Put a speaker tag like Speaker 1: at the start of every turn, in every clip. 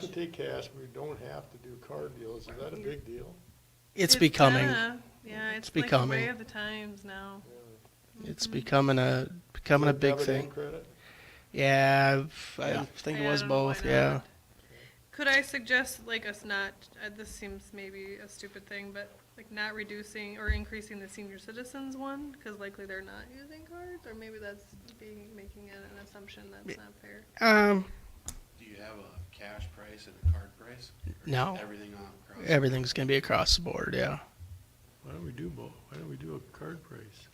Speaker 1: to take cash, we don't have to do card deals, is that a big deal?
Speaker 2: It's becoming,
Speaker 3: kinda- Yeah, it's like a
Speaker 2: becoming.
Speaker 3: way of the times now.
Speaker 2: it's becoming a, becoming a big
Speaker 1: Debit and
Speaker 2: thing.
Speaker 1: Credit?
Speaker 2: Yeah, I've- I
Speaker 4: Yeah.
Speaker 2: think it
Speaker 3: Yeah, I
Speaker 2: was
Speaker 3: don't know why
Speaker 2: both,
Speaker 3: not.
Speaker 2: yeah.
Speaker 3: Could I suggest like us not, uh, this seems maybe a stupid thing, but like not reducing or increasing the senior citizens one? Cause likely they're not using cards, or maybe that's being, making an an assumption that's not fair.
Speaker 2: Um,
Speaker 4: Do you have a cash price and a card price? Or just
Speaker 2: No.
Speaker 4: Everything on across?
Speaker 2: everything's gonna be across the board, yeah.
Speaker 1: Why don't we do both, why don't we do a card price?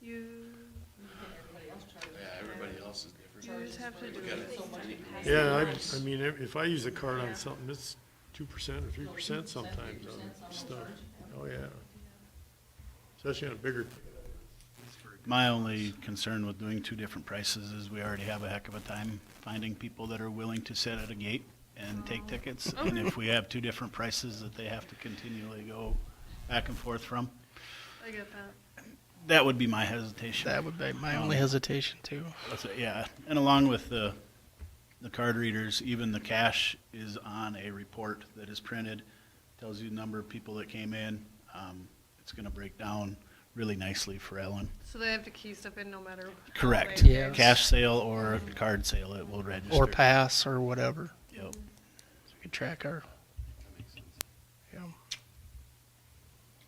Speaker 3: You,
Speaker 4: Yeah, everybody else is different.
Speaker 3: you just have to do
Speaker 4: We got
Speaker 3: it.
Speaker 1: Yeah, I, I mean, if if I use a card on something, it's two percent or three percent sometimes on stuff, oh, yeah. Especially on a bigger,
Speaker 5: My only concern with doing two different prices is we already have a heck of a time finding people that are willing to sit at a gate and take tickets. And if we have two different prices that they have to continually go back and forth from,
Speaker 3: I get that.
Speaker 5: that would be my hesitation.
Speaker 2: That would be my only
Speaker 4: Um,
Speaker 2: hesitation too.
Speaker 5: That's it, Yeah, and along with the, the card readers, even the cash is on a report that is printed, tells you the number of people that came in. Um, It's gonna break down really nicely for Ellen.
Speaker 3: So they have to key stuff in no matter.
Speaker 5: Correct.
Speaker 3: Right.
Speaker 2: Yes.
Speaker 5: Cash sale or a card sale, it will register.
Speaker 2: Or pass or whatever.
Speaker 5: Yep.
Speaker 2: So we could track our, yeah.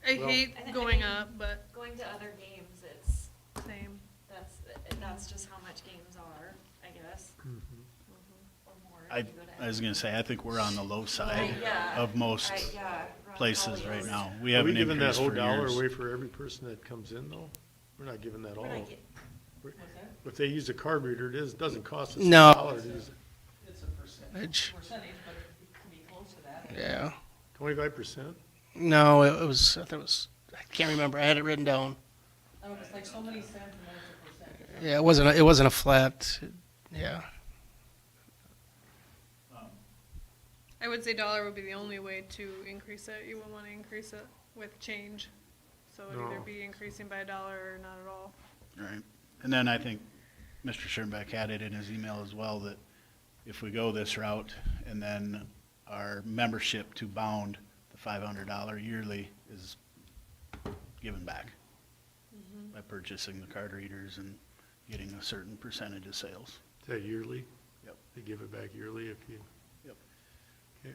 Speaker 3: I
Speaker 1: Well-
Speaker 3: hate
Speaker 6: I thi- I
Speaker 3: going
Speaker 6: mean-
Speaker 3: up, but
Speaker 6: Going to other games, it's,
Speaker 3: same.
Speaker 6: that's, that's just how much games are, I guess.
Speaker 3: Mm-hmm.
Speaker 6: Or more.
Speaker 5: I,
Speaker 6: if you go to
Speaker 5: I was gonna say, I think we're on the low side
Speaker 6: Yeah.
Speaker 5: of most
Speaker 6: I- yeah, Ron
Speaker 5: places
Speaker 6: Paul
Speaker 5: right
Speaker 6: is-
Speaker 5: now. We
Speaker 1: are we
Speaker 5: haven't
Speaker 1: giving that
Speaker 5: increased
Speaker 1: whole
Speaker 5: for
Speaker 1: dollar
Speaker 5: years.
Speaker 1: away for every person that comes in, though? We're not giving that all.
Speaker 6: We're not get-
Speaker 1: If they use a card reader, it is, doesn't cost us a
Speaker 2: No.
Speaker 1: dollar to use it.
Speaker 7: It's a percentage,
Speaker 2: Edge.
Speaker 7: percentage, but it can be close to that.
Speaker 2: Yeah.
Speaker 1: Twenty-five percent?
Speaker 2: No, it was, I thought it was, I can't remember. I had it written down.
Speaker 7: No, it's like so many cents and then it's a percentage.
Speaker 2: Yeah, it wasn't, a- it wasn't a flat, yeah.
Speaker 3: I would say dollar would be the only way to increase it. You wouldn't want to increase it with change. So it'd either
Speaker 1: No.
Speaker 3: be increasing by a dollar or not at all.
Speaker 5: Right. And then I think Mr. Schirnbeck had it in his email as well, that if we go this route and then our membership to Bound, the five hundred dollar yearly is given back by purchasing the card readers and getting a certain percentage of sales.
Speaker 1: Is that yearly?
Speaker 5: Yep.
Speaker 1: They give it back yearly if you.
Speaker 5: Yep.
Speaker 1: Okay.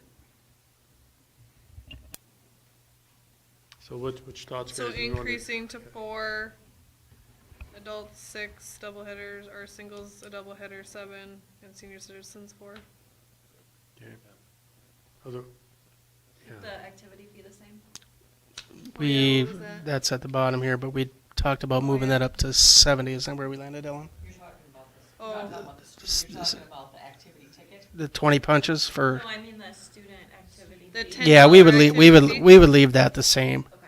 Speaker 1: So what, which thoughts?
Speaker 3: So
Speaker 1: guys, do you wanna-
Speaker 3: increasing to four, adults six, double headers, or singles a double header seven, and senior citizens four.
Speaker 1: Okay. Other,
Speaker 6: The
Speaker 1: yeah,
Speaker 6: activity be the same?
Speaker 2: We,
Speaker 3: what was that?
Speaker 2: that's at the bottom here, but we talked about moving that up to seventy. Is that where we landed, Ellen?
Speaker 7: You're talking about this,
Speaker 3: Oh.
Speaker 7: not about the
Speaker 2: This-
Speaker 7: street, you're
Speaker 2: this-
Speaker 7: talking about the activity ticket.
Speaker 2: The twenty punches for,
Speaker 6: No, I mean the student activity.
Speaker 3: The
Speaker 6: fee.
Speaker 3: ten-
Speaker 2: yeah, we would
Speaker 3: $10
Speaker 2: leave, we would,
Speaker 3: activity?
Speaker 2: we would leave that the same.
Speaker 6: Okay.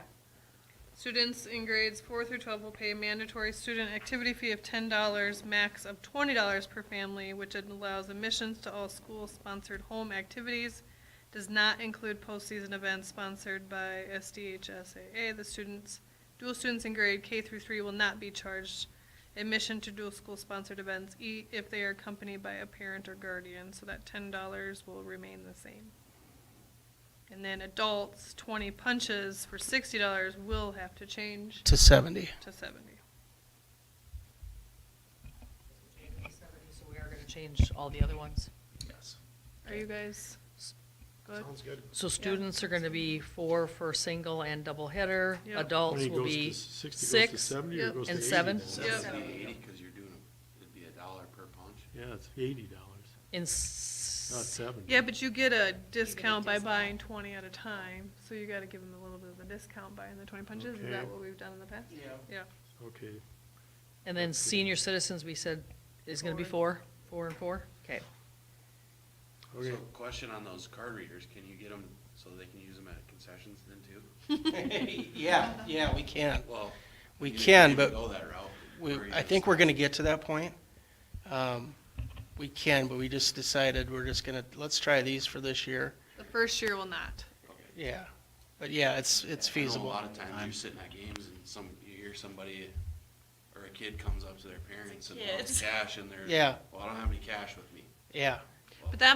Speaker 3: Students in grades four through twelve will pay a mandatory student activity fee of ten dollars, max of twenty dollars per family, which allows admissions to all school-sponsored home activities. Does not include postseason events sponsored by SDHSAA. The students, dual students in grade K through three will not be charged admission to dual school-sponsored events e- if they are accompanied by a parent or guardian, so that ten dollars will remain the same. And then adults, twenty punches for sixty dollars will have to change
Speaker 2: to 70.
Speaker 3: to seventy.
Speaker 7: So we are gonna change all the other ones.
Speaker 3: Are you guys good?
Speaker 1: sounds good.
Speaker 8: So students are gonna be four for single and double header,
Speaker 3: Yep.
Speaker 8: adults
Speaker 1: Many
Speaker 8: will
Speaker 1: goes to
Speaker 8: be
Speaker 1: s- Sixty goes to
Speaker 8: six,
Speaker 1: seventy or
Speaker 3: yep,
Speaker 1: goes to
Speaker 8: and
Speaker 1: eighty?
Speaker 8: seven.
Speaker 3: Yep.
Speaker 4: Seventy, eighty, cause you're doing, a- it'd be a dollar per punch.
Speaker 1: Yeah, it's eighty dollars,
Speaker 8: in
Speaker 1: not
Speaker 8: s-
Speaker 1: seventy.
Speaker 3: Yeah, but you get a discount by buying twenty at a time, so you gotta give them a little bit of a discount buying the twenty punches. Is that
Speaker 1: Okay.
Speaker 3: what we've done in the past? Yeah. Yeah.
Speaker 1: Okay,
Speaker 8: and then senior citizens, we said, is gonna be four, four and four? Okay.
Speaker 1: okay.
Speaker 4: So question on those card readers, can you get them so they can use them at concessions then too?
Speaker 2: Yeah, yeah, we can.
Speaker 4: Well.
Speaker 2: We
Speaker 4: you didn't
Speaker 2: can,
Speaker 4: even
Speaker 2: but
Speaker 4: Go that route.
Speaker 2: We,
Speaker 4: Or you
Speaker 2: I
Speaker 4: just-
Speaker 2: think we're gonna get to that point. Um, we can, but we just decided we're just gonna, let's try these for this year.
Speaker 3: The first year will not.
Speaker 2: Yeah. But yeah, it's, it's
Speaker 4: I know A
Speaker 2: feasible.
Speaker 4: lot of times you're sitting at games and some, you hear somebody or a kid comes up to their parents and wants
Speaker 6: kids.
Speaker 4: cash and they're,
Speaker 2: Yeah.
Speaker 4: well, I don't have any cash with me.
Speaker 2: Yeah.
Speaker 3: But that